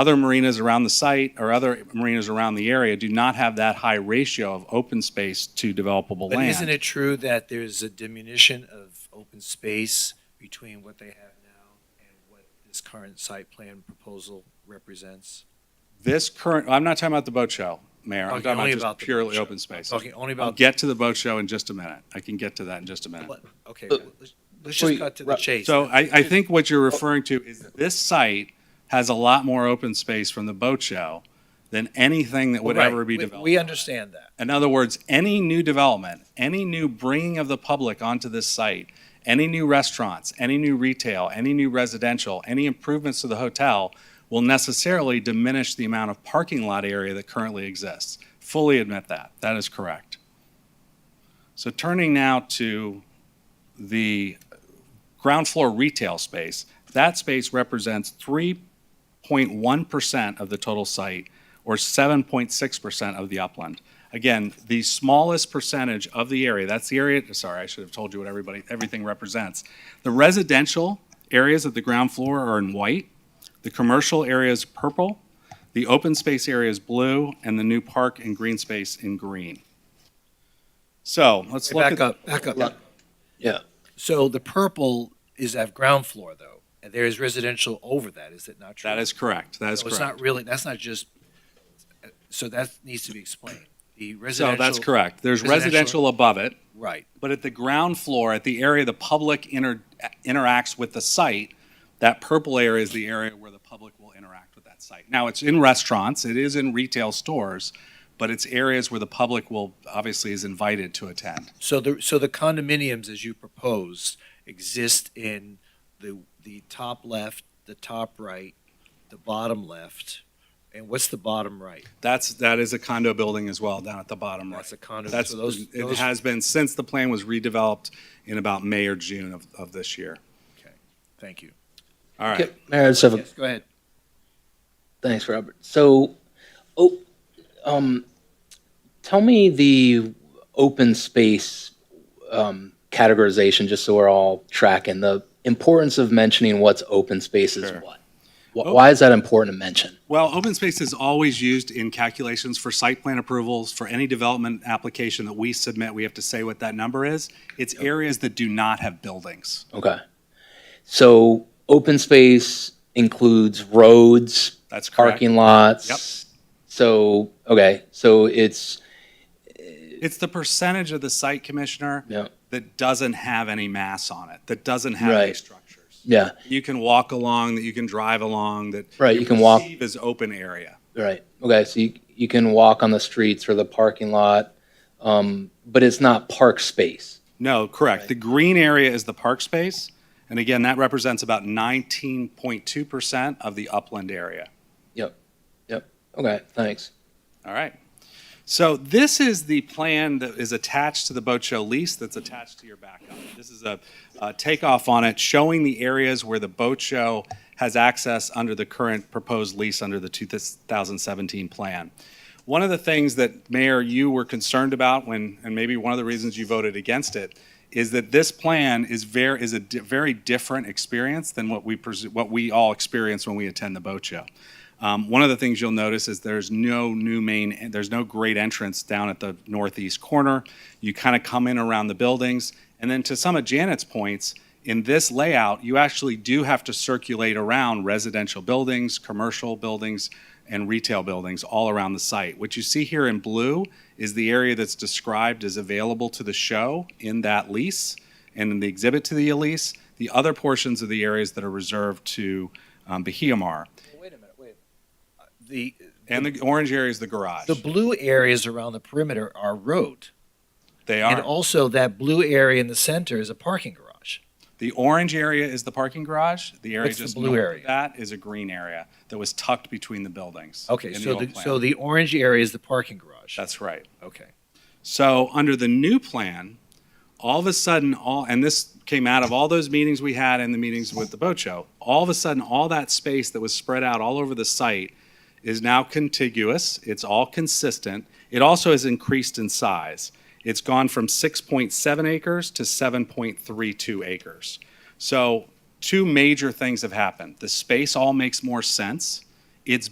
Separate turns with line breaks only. Other marinas around the site or other marinas around the area do not have that high ratio of open space to developable
But isn't
land.
it true that there's a diminution of open space between what they have now and what this current site plan proposal represents?
This current, I'm not talking about the boat show, Mayor. I'm
Talking
talking
only
about just
about the boat
purely
show.
open space.
Talking only
I'll
about,
get to the boat show in just a minute. I can get to that in just a minute.
let- okay, let's- let's just cut to the chase.
So I, I think what you're referring to is this site has a lot more open space from the boat show than anything that would
Right,
ever be
we-
developed.
We understand that.
In other words, any new development, any new bringing of the public onto this site, any new restaurants, any new retail, any new residential, any improvements to the hotel will necessarily diminish the amount of parking lot area that currently exists. Fully admit that. That is correct. So turning now to the ground floor retail space, that space represents 3.1% of the total site or 7.6% of the upland. Again, the smallest percentage of the area, that's the area, sorry, I should have told you what everybody, everything represents. The residential areas of the ground floor are in white, the commercial area is purple, the open space area is blue, and the new park and green space in green. So let's look at.
Back up, back up.
Yeah.
So the purple is at ground floor, though, and there is residential over that, is it not true?
That is correct, that is
So it's
correct.
not really, that's not just, so that needs to be explained. The
So
residential.
that's correct. There's
residential-
residential above it,
Right,
but at the ground floor, at the area the public inter- interacts with the site, that purple area is the area where the public will interact with that site. Now, it's in restaurants, it is in retail stores, but it's areas where the public will, obviously, is invited to attend.
so the, so the condominiums, as you proposed, exist in the, the top left, the top right, the bottom left, and what's the bottom right?
That's, that is a condo building as well, down at the bottom right.
That's a condo,
That's,
so those,
it
those,
has been, since the plan was redeveloped in about May or June of, of this year.
thank you.
All right.
Okay, Mayor, I just have a,
Yes, go ahead.
thanks, Robert. So, oh, um, tell me the open space, um, categorization, just so we're all tracking the importance of mentioning what's open space is
Sure.
what. Wh-
Oh.
Why is that important to mention?
Well, open space is always used in calculations for site plan approvals, for any development application that we submit, we have to say what that number is. It's areas that do not have buildings.
Okay. So open space includes roads,
That's correct.
parking lots.
Yep.
So, okay, so it's,
It's the percentage of the site commissioner
yeah,
that doesn't have any mass on it, that doesn't have any
Right.
structures.
yeah,
You can walk along, that you can drive along, that.
Right, you can walk-
perceive As open area.
right. Okay, so you, you can walk on the streets or the parking lot, um, but it's not park space.
No, correct. The green area is the park space. And again, that represents about 19.2% of the upland area.
Okay, thanks.
All right. So this is the plan that is attached to the boat show lease that's attached to your backup. This is a, a takeoff on it showing the areas where the boat show has access under the current proposed lease under the 2017 plan. One of the things that, Mayor, you were concerned about when, and maybe one of the reasons you voted against it, is that this plan is very, is a di- very different experience than what we, presu- what we all experience when we attend the boat show. Um, one of the things you'll notice is there's no new main, there's no great entrance down at the northeast corner. You kind of come in around the buildings. And then to some of Janet's points, in this layout, you actually do have to circulate around residential buildings, commercial buildings, and retail buildings all around the site. What you see here in blue is the area that's described as available to the show in that lease and in the exhibit to the lease. The other portions of the areas that are reserved to um, Bahiamar.
Wait a minute, wait. The,
And the orange area is the garage.
the blue areas around the perimeter are road.
They
And
are.
also that blue area in the center is a parking garage.
The orange area is the parking garage. The area
What's the
just
blue
north of
area?
that is a green area that was tucked between the buildings.
Okay,
in
so
old
the,
plan.
so the orange area is the parking garage.
That's right.
Okay.
So under the new plan, all of a sudden, all, and this came out of all those meetings we had and the meetings with the boat show, all of a sudden, all that space that was spread out all over the site is now contiguous. It's all consistent. It also has increased in size. It's gone from 6.7 acres to 7.32 acres. So two major things have happened. The space all makes more sense. It's